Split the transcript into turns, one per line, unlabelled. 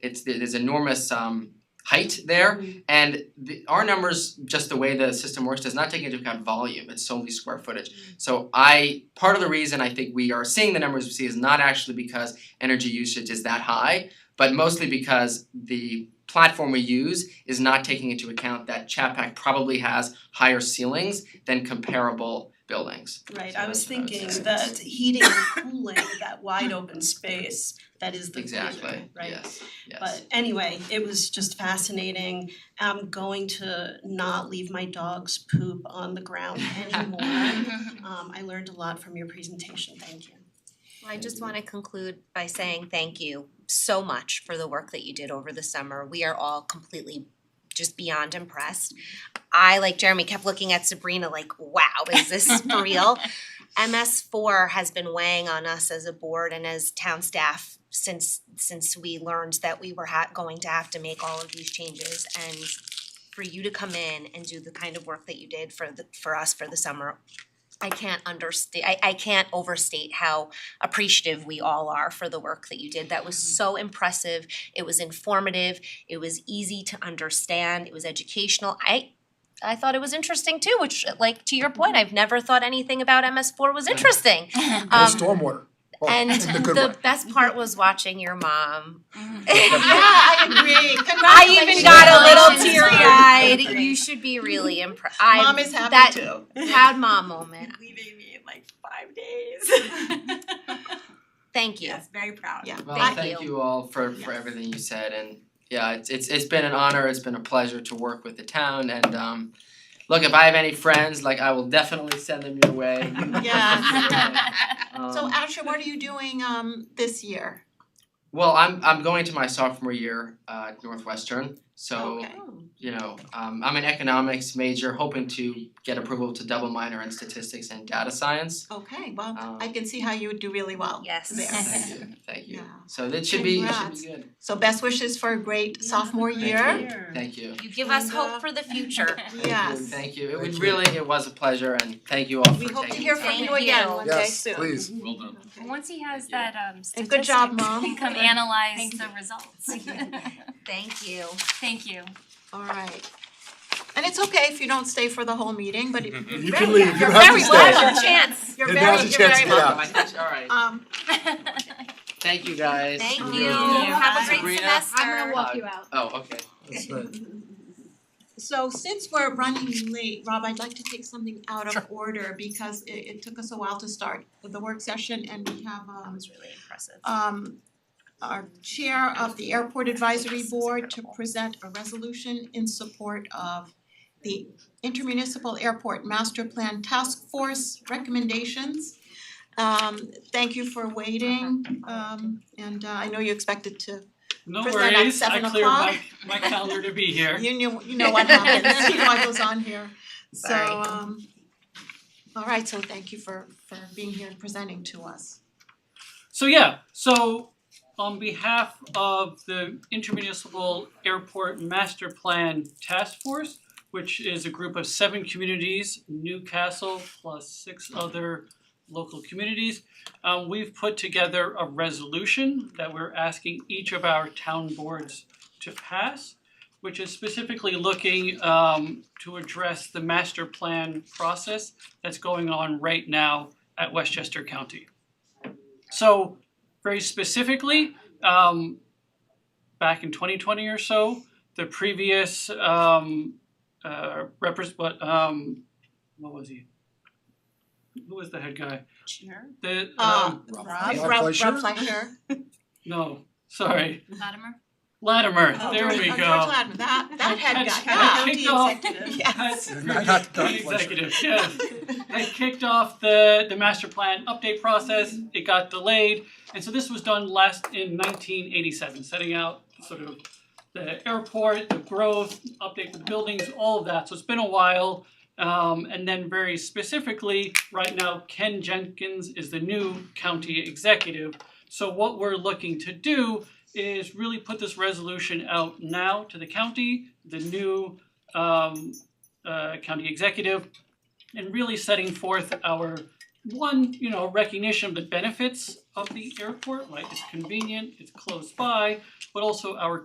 it's there's enormous um height there
Um,
and the, our numbers, just the way the system works, does not take into account volume, it's solely square footage. So I, part of the reason I think we are seeing the numbers we see is not actually because energy usage is that high, but mostly because the platform we use is not taking into account that Chapac probably has higher ceilings than comparable buildings.
Right,
So
I was
that's what I would
thinking
say.
that heating and cooling, that wide open space, that is the cooler, right?
Exactly, yes, yes.
But anyway, it was just fascinating. I'm going to not leave my dog's poop on the ground anymore.
Mm-hmm.
Um I learned a lot from your presentation, thank you.
I just wanna conclude by saying thank you so much for the work that you did over the summer. We are all completely just beyond impressed. I, like Jeremy, kept looking at Sabrina like, wow, is this for real? MS four has been weighing on us as a board and as town staff since since we learned that we were ha- going to have to make all of these changes and for you to come in and do the kind of work that you did for the for us for the summer, I can't understate I I can't overstate how appreciative we all are for the work that you did. That was so impressive. It was informative. It was easy to understand. It was educational. I I thought it was interesting too, which like to your point, I've never thought anything about MS4 was interesting.
No
Um,
stormwater. Oh,
and
in the good
the
way.
best part was watching your mom.
I agree.
I even got a little teary eyed.
Congratulations.
You should be really impressed. I
Mom is happy
that
too.
proud mom moment.
leaving me in like five days.
Thank you.
yes, very proud.
Yeah.
Well,
Thank
thank
you.
you all for for
Yes.
everything you said and yeah, it's it's it's been an honor, it's been a pleasure to work with the town and um look, if I have any friends, like I will definitely send them your way.
Yeah.
Um,
So Asher, what are you doing um this year?
well, I'm I'm going to my sophomore year uh at Northwestern, so
Okay.
you know, um I'm an economics major hoping to get approval to double minor in statistics and data science.
Okay, well,
Um,
I can see how you would do really well
Yes.
there.
Thank you, thank you.
Yeah.
So it should be it should
Congrats.
be good.
So best wishes for a great sophomore year.
Thank you.
You give us
And, uh,
hope for the future.
Thank you,
Yes.
Thank you. It
Thank
was
you.
really, it was a pleasure and thank you all for
We
taking
hope to
the
hear from
time.
you
Thank
again
you.
one day
Yes,
soon.
please.
Well done.
Okay.
And once he has
Thank you.
that um
And
statistic,
good job, Mom.
he can come analyze
Thank
the
you.
results.
Thank
Thank you.
Thank you.
All right. And it's okay if you don't stay for the whole meeting, but if you're
You
very-
can leave. You
You're
don't have to
very
stay.
welcome.
Chance.
You're
And
very,
now's
you're
your chance
very
to get out.
welcome.
All right.
Um,
Thank you guys.
Thank
Really
you.
appreciate it.
Have a great
Sabrina?
semester.
walk you out. Oh, okay.
That's right.
So since we're running late, Rob, I'd like to take something out of order because it it took us a while to start the work session and we have
That
um
was really impressive.
um our chair of the airport advisory board to present a resolution in support of the intermunicipal airport master plan task force recommendations. Um thank you for waiting um and uh, I know you expected to,
No
Present at
worries, I
seven
cleared my
o'clock.
my calendar to be here.
you knew, you know what happens, you know what goes on here. So
Sorry.
um all right, so thank you for for being here and presenting to us.
So yeah, so on behalf of the Intermunicipal Airport Master Plan Task Force, which is a group of seven communities, Newcastle plus six other local communities, uh, we've put together a resolution that we're asking each of our town boards to pass, which is specifically looking um, to address the master plan process that's going on right now at Westchester County. So very specifically, um back in twenty twenty or so, the previous um uh repres- what um what was he? Who was the head guy? The
Uh,
um
Rob
Rob, Rob
Fleischer?
Rob Fleischer.
no, sorry,
Latimer?
Latimer,
Oh,
there
George-
we
oh,
go.
George Latimer, that, that head guy,
That's-
yeah.
that kicked off-
Yes.
Not- not- not
Executive,
Fleischer.
yes. They kicked off the the master plan update process, it got delayed, and so this was done last in nineteen eighty seven, setting out sort of the airport, the growth, update with buildings, all of that, so it's been a while. Um and then very specifically, right now Ken Jenkins is the new county executive. So what we're looking to do is really put this resolution out now to the county, the new um uh county executive and really setting forth our one, you know, recognition of the benefits of the airport, right? It's convenient, it's close by, but also our